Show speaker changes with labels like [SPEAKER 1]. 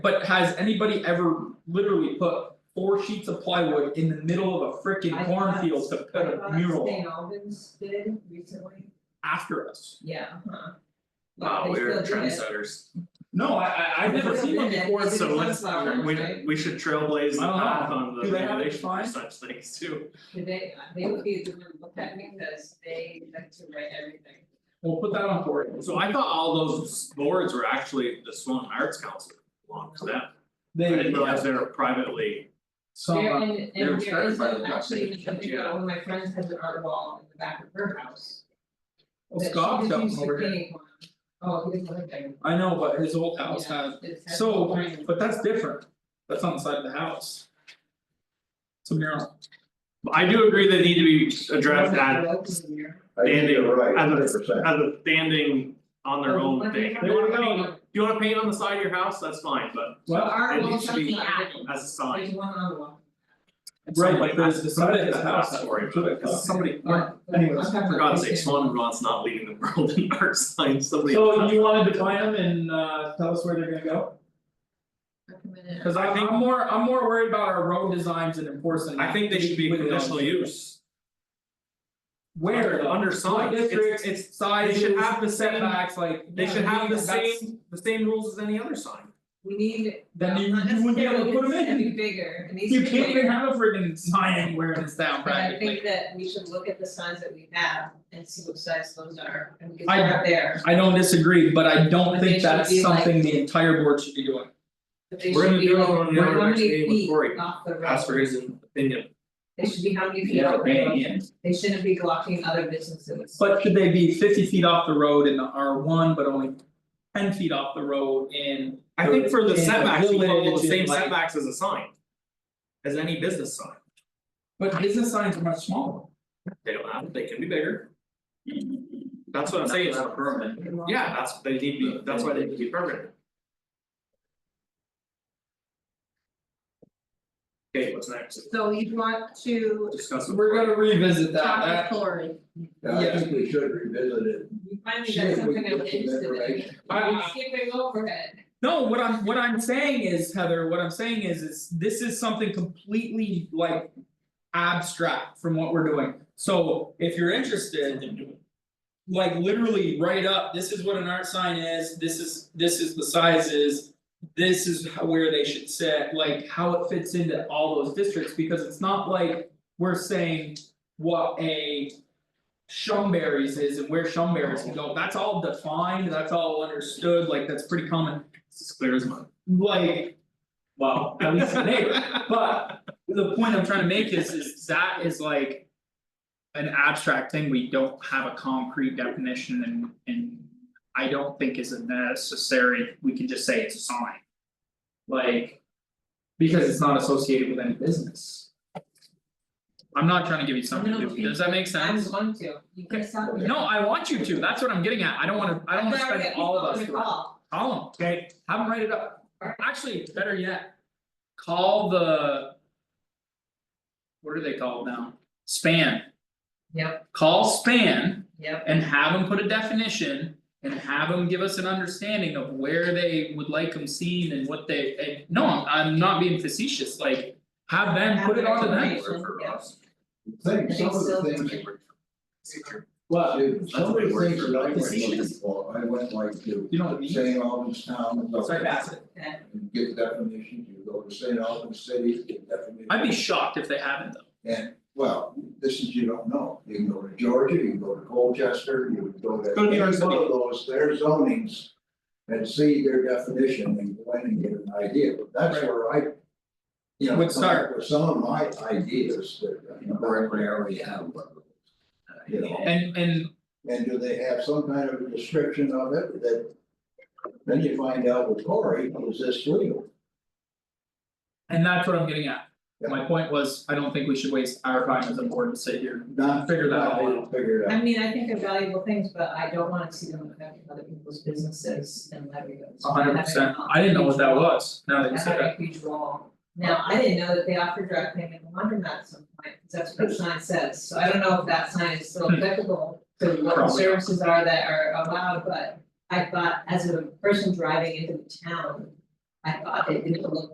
[SPEAKER 1] But has anybody ever literally put four sheets of plywood in the middle of a frickin'
[SPEAKER 2] I
[SPEAKER 1] cornfield to put
[SPEAKER 2] I
[SPEAKER 1] a
[SPEAKER 2] thought
[SPEAKER 1] mural
[SPEAKER 2] St. Albans did recently,
[SPEAKER 1] after us?
[SPEAKER 2] yeah, huh.
[SPEAKER 3] Wow,
[SPEAKER 2] But they
[SPEAKER 3] Oh, we're
[SPEAKER 2] still did it.
[SPEAKER 3] trendsetters.
[SPEAKER 1] No, I I I've never
[SPEAKER 2] They
[SPEAKER 1] seen one
[SPEAKER 2] did it.
[SPEAKER 1] before,
[SPEAKER 2] They did
[SPEAKER 1] so
[SPEAKER 2] it
[SPEAKER 1] let's,
[SPEAKER 2] sunflower,
[SPEAKER 3] We
[SPEAKER 2] right?
[SPEAKER 3] we should trailblaze the
[SPEAKER 1] I don't know.
[SPEAKER 3] path on the
[SPEAKER 1] Do they have any
[SPEAKER 3] regulation for
[SPEAKER 1] fines?
[SPEAKER 3] such things too.
[SPEAKER 2] Did they, uh, they would be the one to look at me because they like to write everything.
[SPEAKER 1] we'll put that on for
[SPEAKER 3] So I thought all those boards were actually the Swan Arts Council belonged to them, I
[SPEAKER 1] They,
[SPEAKER 3] didn't realize they were privately,
[SPEAKER 1] some,
[SPEAKER 2] There
[SPEAKER 1] uh,
[SPEAKER 2] and
[SPEAKER 3] they were
[SPEAKER 2] and there
[SPEAKER 3] started
[SPEAKER 2] is
[SPEAKER 3] by the
[SPEAKER 2] a- actually,
[SPEAKER 3] Dutch,
[SPEAKER 2] I think
[SPEAKER 3] yeah.
[SPEAKER 2] one of my friends has an art wall in the back of her house.
[SPEAKER 3] Oh,
[SPEAKER 1] well, Scott's got one over
[SPEAKER 2] That she
[SPEAKER 1] here,
[SPEAKER 2] was used to paint on. Oh, he doesn't live there.
[SPEAKER 1] I know, but his old house
[SPEAKER 2] Yeah,
[SPEAKER 1] has,
[SPEAKER 2] it's- that's all
[SPEAKER 1] so,
[SPEAKER 2] mine.
[SPEAKER 1] but that's different, that's on the side of the house. It's a mural,
[SPEAKER 3] But I do agree they need to be addressed as
[SPEAKER 2] Roads in there.
[SPEAKER 4] I think you're right,
[SPEAKER 3] Standing
[SPEAKER 4] hundred
[SPEAKER 3] as
[SPEAKER 4] percent.
[SPEAKER 3] as a standing on their
[SPEAKER 2] Oh,
[SPEAKER 3] own
[SPEAKER 2] but
[SPEAKER 3] thing.
[SPEAKER 2] have
[SPEAKER 3] They
[SPEAKER 2] it
[SPEAKER 3] wanna
[SPEAKER 2] on
[SPEAKER 3] paint,
[SPEAKER 2] the-
[SPEAKER 3] you wanna paint on the side of your house, that's fine, but
[SPEAKER 2] The
[SPEAKER 1] well,
[SPEAKER 2] art
[SPEAKER 3] it
[SPEAKER 2] wall
[SPEAKER 3] needs to be
[SPEAKER 2] something added,
[SPEAKER 3] as a sign.
[SPEAKER 2] there's one on the wall.
[SPEAKER 1] right,
[SPEAKER 3] Somebody-
[SPEAKER 1] but there's the side of his
[SPEAKER 3] that's
[SPEAKER 1] house,
[SPEAKER 3] not a story,
[SPEAKER 1] so
[SPEAKER 3] but-
[SPEAKER 1] it's somebody,
[SPEAKER 2] Yeah, but
[SPEAKER 1] anyways,
[SPEAKER 2] I'm talking about
[SPEAKER 3] uh, For God's sake,
[SPEAKER 2] right
[SPEAKER 3] Swan Vermont's not leading the world in art signs, somebody.
[SPEAKER 1] so you wanna define them and uh tell us where they're gonna go?
[SPEAKER 2] there. Come in and-
[SPEAKER 1] Cause I
[SPEAKER 3] I think-
[SPEAKER 1] I'm more, I'm more worried about our road designs and enforcing.
[SPEAKER 3] I think they should be
[SPEAKER 1] with the-
[SPEAKER 3] conditional use.
[SPEAKER 1] Where
[SPEAKER 3] Under-
[SPEAKER 1] though?
[SPEAKER 3] under signs,
[SPEAKER 1] What
[SPEAKER 3] it's-
[SPEAKER 1] districts, it's sizes,
[SPEAKER 3] they should have the same-
[SPEAKER 1] setbacks, like.
[SPEAKER 3] They should have the
[SPEAKER 1] That's-
[SPEAKER 3] same, the same rules as any other sign.
[SPEAKER 2] We need.
[SPEAKER 1] Then you- you wouldn't be able to put 'em in.
[SPEAKER 2] It's gonna be bigger, it needs to
[SPEAKER 1] You
[SPEAKER 2] be
[SPEAKER 1] can't
[SPEAKER 2] bigger.
[SPEAKER 1] even have a friggin' sign anywhere in this town
[SPEAKER 2] But I
[SPEAKER 1] practically.
[SPEAKER 2] think that we should look at the signs that we have and see what size those are, and we can
[SPEAKER 1] I-
[SPEAKER 2] start there,
[SPEAKER 1] I don't disagree, but I don't
[SPEAKER 2] But they
[SPEAKER 1] think
[SPEAKER 2] should
[SPEAKER 1] that's
[SPEAKER 2] be like-
[SPEAKER 1] something the entire board should be doing.
[SPEAKER 2] but they
[SPEAKER 3] We're
[SPEAKER 2] should
[SPEAKER 3] gonna
[SPEAKER 2] be
[SPEAKER 3] do
[SPEAKER 2] like,
[SPEAKER 3] another one on the other
[SPEAKER 2] how
[SPEAKER 3] next
[SPEAKER 2] many
[SPEAKER 3] meeting with
[SPEAKER 2] feet
[SPEAKER 3] Cory.
[SPEAKER 2] off the road?
[SPEAKER 3] Ask for his opinion.
[SPEAKER 2] They should be how many feet off the road? They shouldn't be blocking other businesses.
[SPEAKER 1] But should they be fifty feet off the road in the R one, but only ten feet off the road in?
[SPEAKER 3] I think for the
[SPEAKER 1] in a
[SPEAKER 3] setbacks, you follow
[SPEAKER 1] village
[SPEAKER 3] the
[SPEAKER 1] and,
[SPEAKER 3] same
[SPEAKER 1] like-
[SPEAKER 3] setbacks as a sign. As any business sign,
[SPEAKER 1] But business signs are much smaller.
[SPEAKER 3] they don't have, they can be bigger. That's what I'm saying, it's- yeah, that's, they need to be, that's why they need to be permanent. Okay, what's next?
[SPEAKER 5] So you want to
[SPEAKER 3] Discuss. it.
[SPEAKER 1] We're gonna revisit that,
[SPEAKER 5] talk
[SPEAKER 1] that,
[SPEAKER 5] to Cory,
[SPEAKER 4] Yeah, I think we should revisit it.
[SPEAKER 2] You finally
[SPEAKER 4] See
[SPEAKER 2] got
[SPEAKER 4] if we
[SPEAKER 2] something
[SPEAKER 4] can
[SPEAKER 2] I'm
[SPEAKER 4] get some
[SPEAKER 2] interested in,
[SPEAKER 4] information.
[SPEAKER 1] I-
[SPEAKER 2] I'm
[SPEAKER 1] I-
[SPEAKER 2] skipping over it,
[SPEAKER 1] No, what I'm what I'm saying is Heather, what I'm saying is is this is something completely like. Abstract from what we're doing, so if you're interested. Like literally write up, this is what an art sign is, this is this is the sizes. This is how where they should sit, like how it fits into all those districts, because it's not like we're saying what a. Shumberries is and where Shumberries can go, that's all defined, that's all understood, like that's pretty common
[SPEAKER 3] It's as clear as mud.
[SPEAKER 1] like. Well, at least the neighbor, but the point I'm trying to make is is that is like. An abstract thing, we don't have a concrete definition and and I don't think is necessary, we can just say it's a sign. Like. Because it's not associated with any business. I'm not trying to give you something to do, does that make
[SPEAKER 2] I'm
[SPEAKER 1] sense?
[SPEAKER 2] going to, you can stop me.
[SPEAKER 1] No, I want you to, that's what I'm getting at, I don't wanna, I don't wanna spend all of us.
[SPEAKER 2] But I already have people on the
[SPEAKER 1] doing it.
[SPEAKER 2] call.
[SPEAKER 1] Call them, okay, have them write it up,
[SPEAKER 2] Alright.
[SPEAKER 1] actually, better yet, call the. What are they called now? Span,
[SPEAKER 2] Yep,
[SPEAKER 1] call Span
[SPEAKER 2] yep,
[SPEAKER 1] and have them put a definition. And have them give us an understanding of where they would like them seen and what they, and no, I'm I'm not being facetious, like. Have them put it onto them,
[SPEAKER 2] Have them.
[SPEAKER 3] For us.
[SPEAKER 4] I Think some of the
[SPEAKER 2] Think so.
[SPEAKER 4] things,
[SPEAKER 3] Big word. Teacher.
[SPEAKER 1] what,
[SPEAKER 4] dude, some of
[SPEAKER 3] That's a big
[SPEAKER 4] the
[SPEAKER 3] word
[SPEAKER 4] things
[SPEAKER 3] for
[SPEAKER 4] that I
[SPEAKER 3] it.
[SPEAKER 4] went looking
[SPEAKER 1] Facetious.
[SPEAKER 4] for, I went like to
[SPEAKER 1] you know what I mean?
[SPEAKER 4] St. Albans town. and look
[SPEAKER 1] Sorry, pass it.
[SPEAKER 2] okay,
[SPEAKER 4] and Get definitions, you go to St. Albans city, get definitions.
[SPEAKER 1] I'd be shocked if they haven't though,
[SPEAKER 4] And, well, this is, you don't know, you can go to Georgia, you can go to Colchester, you can go to
[SPEAKER 3] Go to New
[SPEAKER 4] any
[SPEAKER 3] York
[SPEAKER 4] one of
[SPEAKER 3] City.
[SPEAKER 4] those, their zonings. And see their definition and go in and get an idea, but that's
[SPEAKER 1] Right.
[SPEAKER 4] where I. You know,
[SPEAKER 1] Would
[SPEAKER 4] come up
[SPEAKER 1] start.
[SPEAKER 4] with some of my ideas that, you know, we already have, but. You know,
[SPEAKER 1] and and
[SPEAKER 4] and do they have some kind of a description of it that? Then you find out with Cory, is this legal?
[SPEAKER 1] and that's what I'm getting at. My point was, I don't think we should waste our time as a board to sit here
[SPEAKER 4] Not
[SPEAKER 1] Figure that
[SPEAKER 4] not
[SPEAKER 1] all out.
[SPEAKER 4] Figure it out.
[SPEAKER 2] I mean, I think they're valuable things, but I don't wanna see them affecting other people's businesses and livelihoods.
[SPEAKER 1] A hundred percent, I didn't know what that was, now that you
[SPEAKER 2] That's
[SPEAKER 1] said that,
[SPEAKER 2] a huge wall. Now, I didn't know that they offered direct payment in London at some point, because that's what the sign says, so I don't know if that sign is still applicable to what the
[SPEAKER 1] Hmm. Probably.
[SPEAKER 2] services are that are allowed, but I thought as a person driving into the town. I thought it didn't look